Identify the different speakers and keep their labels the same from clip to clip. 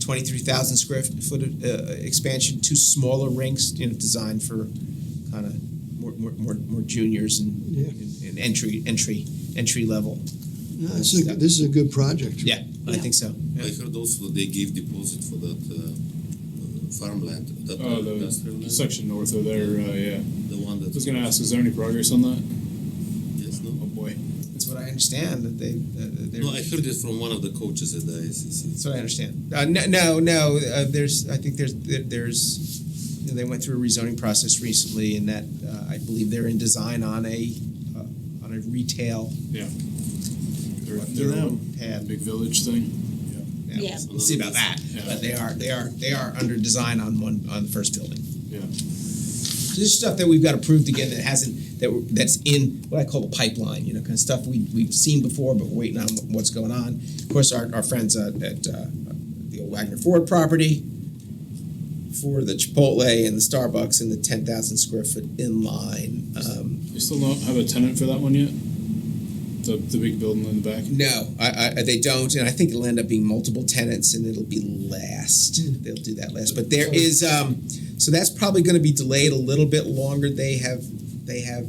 Speaker 1: twenty-three thousand square foot uh, expansion, two smaller rinks, you know, designed for kind of more, more, more, more juniors and,
Speaker 2: Yeah.
Speaker 1: and, and entry entry entry level.
Speaker 2: No, it's a, this is a good project.
Speaker 1: Yeah, I think so.
Speaker 3: I
Speaker 1: Yeah.
Speaker 3: heard also that they gave deposit for that uh, uh, farmland, that
Speaker 4: Uh,
Speaker 3: industrial
Speaker 4: the
Speaker 3: land,
Speaker 4: section north of there, uh, yeah.
Speaker 3: the one
Speaker 4: I
Speaker 3: that.
Speaker 4: was gonna ask, is there any progress on that?
Speaker 3: Yes,
Speaker 4: Oh
Speaker 3: no.
Speaker 4: boy.
Speaker 1: That's what I understand. That they that they're,
Speaker 3: No, I heard it from one of the coaches at the ICC.
Speaker 1: That's what I understand. Uh, no, no, no. Uh, there's, I think there's, there, there's, you know, they went through a rezoning process recently, and that uh, I believe they're in design on a, uh, on a retail
Speaker 4: They're,
Speaker 1: their
Speaker 4: they're
Speaker 1: own
Speaker 4: a
Speaker 1: pad.
Speaker 4: big village thing.
Speaker 1: Yeah,
Speaker 5: Yeah.
Speaker 1: We'll see about that.
Speaker 4: Yeah.
Speaker 1: But they are, they are, they are under design on one on the first building.
Speaker 4: Yeah.
Speaker 1: So this is stuff that we've got approved again that hasn't that we're- that's in what I call the pipeline, you know, kind of stuff we we've seen before, but we're waiting on what's going on. Of course, our, our friends at, at uh, the old Wagner Ford property for the Chipotle and the Starbucks and the ten thousand square foot inline. Um,
Speaker 4: They still don't have a tenant for that one yet? The, the big building in the back?
Speaker 1: no, I, I, they don't, and I think it'll end up being multiple tenants, and it'll be last. They'll do that last, but there is um, so that's probably going to be delayed a little bit longer. They have they have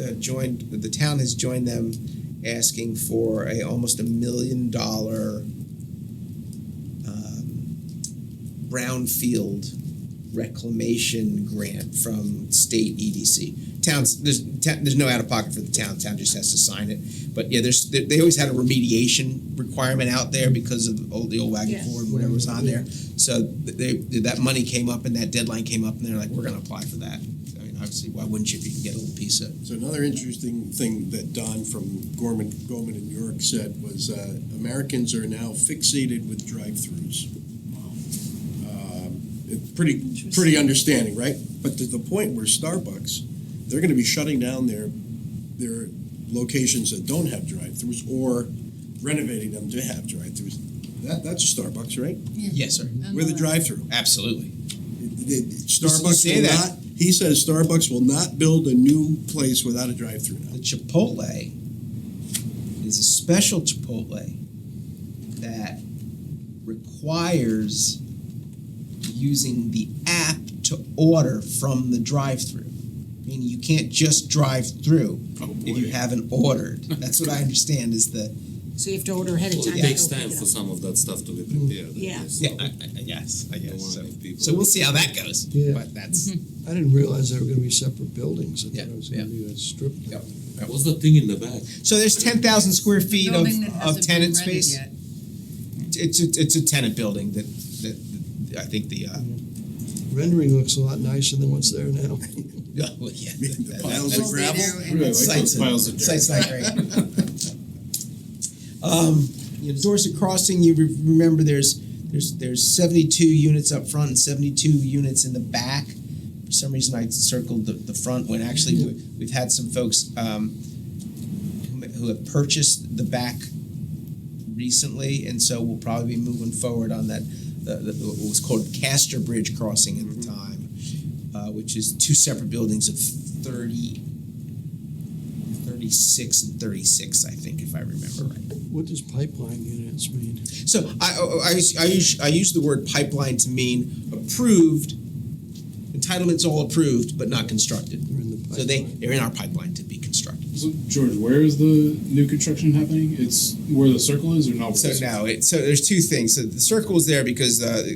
Speaker 1: uh, joined the town has joined them asking for a almost a million dollar um, brownfield reclamation grant from state EDC. Towns there's ta- there's no out of pocket for the town. Town just has to sign it. But yeah, there's they, they always had a remediation requirement out there because of old, the old wagon
Speaker 5: Yes.
Speaker 1: board whatever was on there. So they, they that money came up and that deadline came up and they're like we're going to apply for that. I mean, obviously, why wouldn't you if you can get a little piece of
Speaker 6: So another interesting thing that Don from Gorman, Gorman in New York said was uh, Americans are now fixated with drive-throughs. Um, it's pretty, pretty understanding, right? But to the point where Starbucks, they're going to be shutting down their their locations that don't have drive-throughs or renovating them to have drive-throughs. That, that's a Starbucks, right?
Speaker 1: Yes, sir.
Speaker 6: With a drive-through.
Speaker 1: Absolutely.
Speaker 6: It- it-
Speaker 1: You
Speaker 6: Starbucks
Speaker 1: say
Speaker 6: will
Speaker 1: that.
Speaker 6: not. He says Starbucks will not build a new place without a drive-through now.
Speaker 1: The Chipotle is a special Chipotle that requires using the app to order from the drive-through. Meaning you can't just drive through
Speaker 4: Oh boy.
Speaker 1: if you haven't ordered. That's what I understand is the
Speaker 5: So you have to order ahead of
Speaker 3: Well,
Speaker 5: time.
Speaker 3: it
Speaker 5: to
Speaker 3: takes
Speaker 5: go pick
Speaker 3: time
Speaker 5: it
Speaker 3: for
Speaker 5: up.
Speaker 3: some of that stuff to be prepared. I
Speaker 5: Yeah.
Speaker 3: guess.
Speaker 1: guess I
Speaker 3: guess so.
Speaker 1: So we'll see how that goes.
Speaker 2: Yeah.
Speaker 1: But that's
Speaker 7: Mm-hmm.
Speaker 2: I didn't realize they were going to be separate buildings. I thought
Speaker 1: Yeah,
Speaker 2: it was going to be a strip.
Speaker 1: Yeah.
Speaker 3: What's the thing in the back?
Speaker 1: so there's ten thousand square feet of,
Speaker 7: Building that
Speaker 1: of
Speaker 7: hasn't been
Speaker 1: tenant
Speaker 7: rented
Speaker 1: space.
Speaker 7: yet.
Speaker 1: It's a, it's a tenant building that, that, that I think the, uh,
Speaker 2: Rendering looks a lot nicer than what's there now.
Speaker 1: yeah, well, yeah. that- that-
Speaker 6: piles
Speaker 1: that-
Speaker 6: of gravel?
Speaker 4: Really like
Speaker 1: Sites
Speaker 4: those piles of dirt.
Speaker 1: Sites not great. Um, you know, Dorset Crossing, you re- remember there's, there's, there's seventy-two units up front and seventy-two units in the back. For some reason, I circled the, the front when actually we- we've had some folks, um, who- who have purchased the back recently, and so we'll probably be moving forward on that, the, the, what was called Castor Bridge Crossing
Speaker 4: Mm-hmm.
Speaker 1: at the time, uh, which is two separate buildings of thirty 36 and 36, I think, if I remember right.
Speaker 2: What does pipeline units mean?
Speaker 1: So I, oh, I, I, I use, I use the word pipeline to mean approved, entitlements all approved, but not constructed.
Speaker 2: They're in the pipeline.
Speaker 1: So they, they're in our pipeline to be constructed.
Speaker 4: So, George, where is the new construction happening? It's where the circle is or not? Where
Speaker 1: So
Speaker 4: the circle-
Speaker 1: now, it, so there's two things. So the circle is there because uh,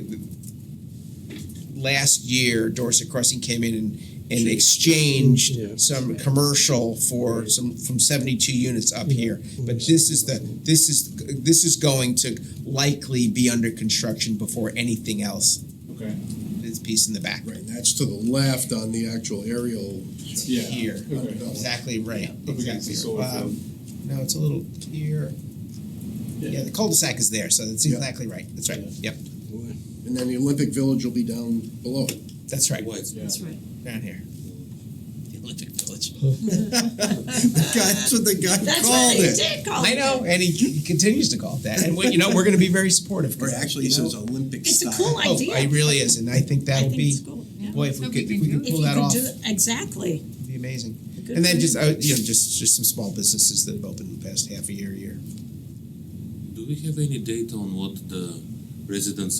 Speaker 1: last year Dorset Crossing came in and, and exchanged
Speaker 2: Yeah.
Speaker 1: some commercial for some from 72 units up here. But this is the this is this is going to likely be under construction before anything else.
Speaker 4: Okay.
Speaker 1: This piece in the back
Speaker 6: Right, and that's to the left on the actual aerial.
Speaker 4: Yeah.
Speaker 1: here,
Speaker 4: Okay.
Speaker 1: exactly right.
Speaker 4: Up against
Speaker 1: Exactly.
Speaker 4: the solar
Speaker 1: Um,
Speaker 4: field.
Speaker 1: No, it's a little here.
Speaker 4: Yeah.
Speaker 1: Yeah, the cul-de-sac is there, so that's
Speaker 6: Yeah.
Speaker 1: exactly right. That's right. Yep,
Speaker 2: Boy.
Speaker 6: And then the Olympic Village will be down below.
Speaker 1: that's right.
Speaker 3: Why it's
Speaker 4: Yeah.
Speaker 5: That's right.
Speaker 1: down here. The Olympic Village.
Speaker 6: That's what the guy
Speaker 5: That's
Speaker 6: called
Speaker 5: what they
Speaker 6: it.
Speaker 5: did call it.
Speaker 1: I know, and he, he continues to call it that. And we, you know, we're going to be very supportive. 'cause
Speaker 6: Or actually, he
Speaker 1: you know,
Speaker 6: says Olympic
Speaker 5: It's a
Speaker 6: style.
Speaker 5: cool
Speaker 1: oh,
Speaker 5: idea.
Speaker 1: it really is, and I think
Speaker 5: I
Speaker 1: that would
Speaker 5: think
Speaker 1: be
Speaker 5: it's cool. Yeah.
Speaker 1: boy if we
Speaker 7: Hope
Speaker 1: could
Speaker 7: we
Speaker 1: if
Speaker 7: can
Speaker 1: we could
Speaker 7: do it.
Speaker 1: pull
Speaker 5: If you
Speaker 1: that
Speaker 5: could
Speaker 1: off,
Speaker 5: do
Speaker 1: it'd
Speaker 5: it, exactly.
Speaker 1: be amazing.
Speaker 5: Good
Speaker 1: and then
Speaker 5: for
Speaker 1: just
Speaker 5: you.
Speaker 1: uh, you know just just some small businesses that have opened in the past half a year, year.
Speaker 3: Do we have any data on what the residents